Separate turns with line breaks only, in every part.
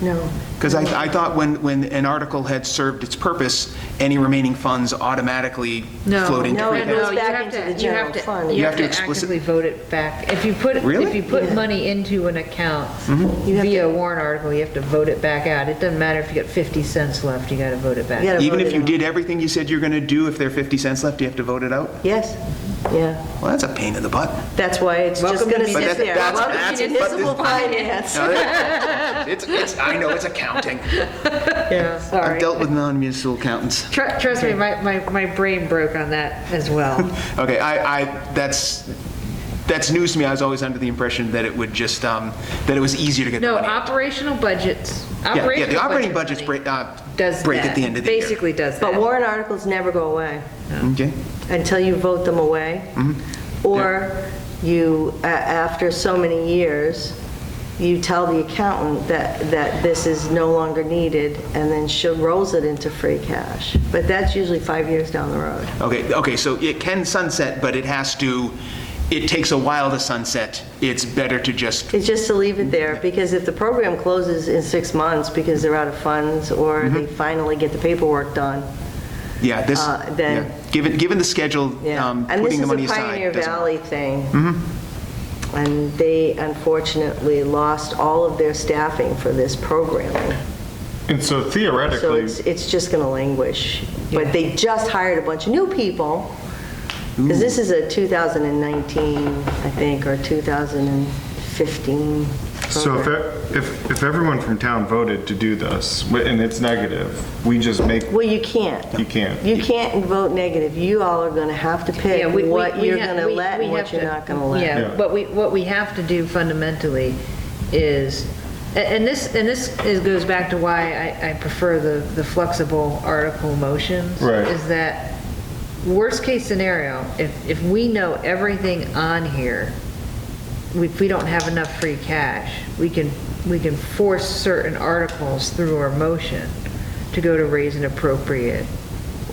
No.
Because I, I thought when, when an article had served its purpose, any remaining funds automatically
Oh, No.
flowed into
No,
free
it goes
cash.
you
back
have
into
to-
the
you have
general
to-
fund.
You
You
have
have
to
to explicit-
actively vote it back. If you put,
Really? Mm-hmm.
if you put
Yeah.
money into an account
You have
via
to-
a warrant article, you have to vote it back out. It doesn't matter if you got 50 cents left, you got to vote it back.
You gotta
Even
vote
if
it
you
out.
did everything you said you're going to do, if there are 50 cents left, you have to vote it out?
Yes, yeah.
Well, that's a pain in the butt.
That's why it's just
Welcome to
going to
be-
sit
But
there.
that's-
Welcome to
that's- but this-
municipal finance.
No, that- It's, it's, I know, it's accounting.
Yeah.
I've
Sorry.
dealt with non-municipal accountants.
Tru- Trust me, my, my, my brain broke on that as well.
Okay, I, I, that's, that's news to me. I was always under the impression that it would just, um, that it was easier to get the
No,
money.
operational budgets,
Yeah,
operational.
Yeah, the operating
budget
budgets
money
break, uh,
does
break at
that.
the end of the year.
Basically does that.
But warrant articles never go away
Okay.
until you vote them away.
Mm-hmm.
Or you, a- after so many years, you tell the accountant that, that this is no longer needed and then she rolls it into free cash. But that's usually five years down the road.
Okay, okay, so it can sunset, but it has to, it takes a while to sunset. It's better to just,
It's just to leave it there, because if the program closes in six months because they're out of funds, or
Mm-hmm.
they finally get the paperwork done,
yeah, this,
Uh, then-
yeah. given, given the schedule,
yeah.
um, putting the money
And this
aside.
is a Pioneer
doesn't work. Mm-hmm.
Valley thing. And they unfortunately lost all of their staffing for this programming.
And so
So
theoretically,
it's, it's just going to languish. But they just hired a bunch of new people, because this is a 2019, I think, or 2015
so
program.
if, e-, if, if everyone from town voted to do this, wi- and it's negative, we just make,
Well, you can't.
You can't.
You can't vote negative. You all are going to have to pick
Yeah, we- we-
what
we
you're
ha-
going to
we-
let
we
and
have
what you're
to-
not going to let.
Yeah,
Yeah.
but we, what we have to do fundamentally is, a- and this, and this is, goes back to why I, I prefer the, the flexible article motions.
Right.
Is that, worst-case scenario, if, if we know everything on here, we- if we don't have enough free cash, we can, we can force certain articles through our motion to go to raise and appropriate,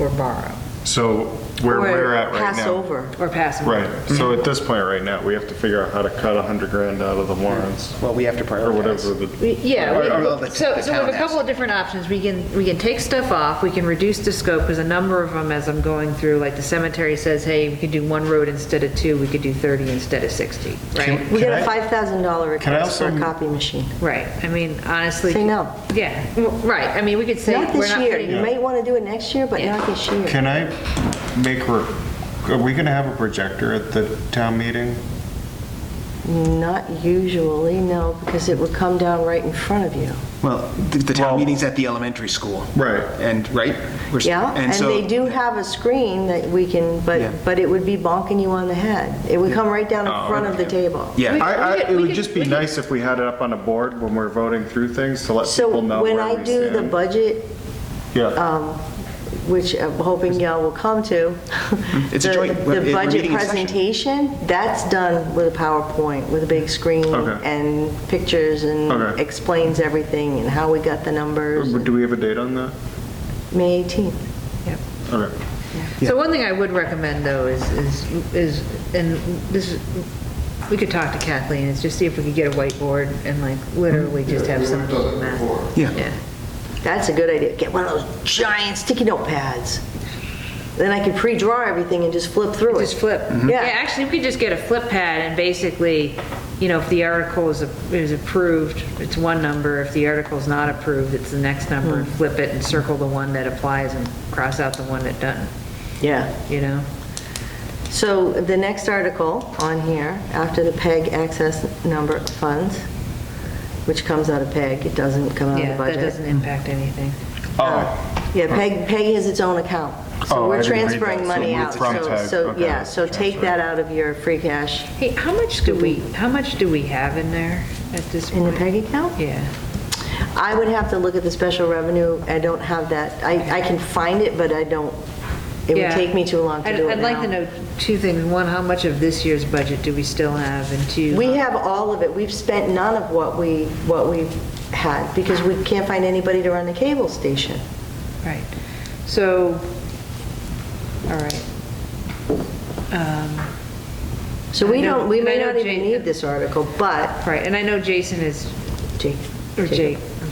or borrow,
so where
Or
we're at right now.
Pass over.
or pass. them.
Right, so at this point right now, we have to figure out how to cut a hundred grand out of the warrants,
Well, we have to
or whatever
prioritize.
We-
the.
Yeah,
Or- or
we-
the-
so,
the
so we have
town
a couple
has.
of different options. We can, we can take stuff off, we can reduce the scope, because a number of them, as I'm going through, like the cemetery says, hey, we could do one road instead of two, we could do 30 instead of 60, right?
We
Can
got a
I-
$5,000
can I
request for a
also-
copy machine.
Right, I mean, honestly.
Say no.
Yeah, w- right, I mean, we could say,
Not
we're
this
not
year. You
putting.
may want to do it next year, but
Yeah.
not this year.
Can I make, re- are we gonna have a projector at the town meeting?
Not usually, no, because it would come down right in front of you.
Well, the- the town
Well-
meeting's at the elementary school.
Right.
And, right? We're s-
Yeah, and
so-
they do have a screen that we can,
Yeah.
but, but it would be bonking you on the head. It would come right down in
Oh,
front of the table.
Yeah,
I, I,
we could- we
it would
could-
just
we
be
could-
nice if we had it up on a board when we're voting through things to let people
So
know
when
where
I
we
do the
stand.
budget
Yeah,
um, which I'm hoping y'all will come to.
It's a
The-
joint- we're-
The
we're
budget
meeting in session.
presentation, that's done with a PowerPoint, with a big screen
Okay.
and pictures and
Okay.
explains everything and how we got the numbers.
do we have a date on that?
May 18th.
Yep.
Okay.
So one thing I would recommend, though, is, is, is, and this, is- we could talk to Kathleen, is just see if we could get a whiteboard and like literally just have some. math.
Yeah.
That's a good idea. Get one of those giant sticky notepads. Then I can pre-draw everything and just flip through it.
Just
Mm-hmm.
flip.
Yeah.
Yeah, actually, we could just get a flip pad and basically, you know, if the article is, is approved, it's one number. If the article's not approved, it's the next number. and Flip it and circle the one that applies and cross out the one that doesn't,
Yeah.
you know?
So the next article on here, after the PEG access number funds, which comes out of PEG, it doesn't come out of the
Yeah, that
budget.
doesn't impact anything.
Oh.
Yeah, PEG, PEG has its own account. So
Oh, I
we're
didn't read
transferring
that. So
money
we're
out.
from
So,
PEG.
so,
Okay,
yeah, so take
transfer.
that out of your free cash
Hey, how much do we, how much do we have in there at this
in the
point?
PEG account.
Yeah.
I would have to look at the special revenue. I don't have that. I, I can find it, but I don't, it would
Yeah.
take me too long to
I'd-
do it
I'd like
now.
to know two things. One, how much of this year's budget do we still have? And two.
We have all of it. We've spent none of what we, what we had because we can't find anybody to run the cable station.
Right, so, all right. Um,
So we
I know-
don't, we
and I
may
know
not even
Jake-
need this article, but
Right, and I know Jason is,
Jake.
or Jake,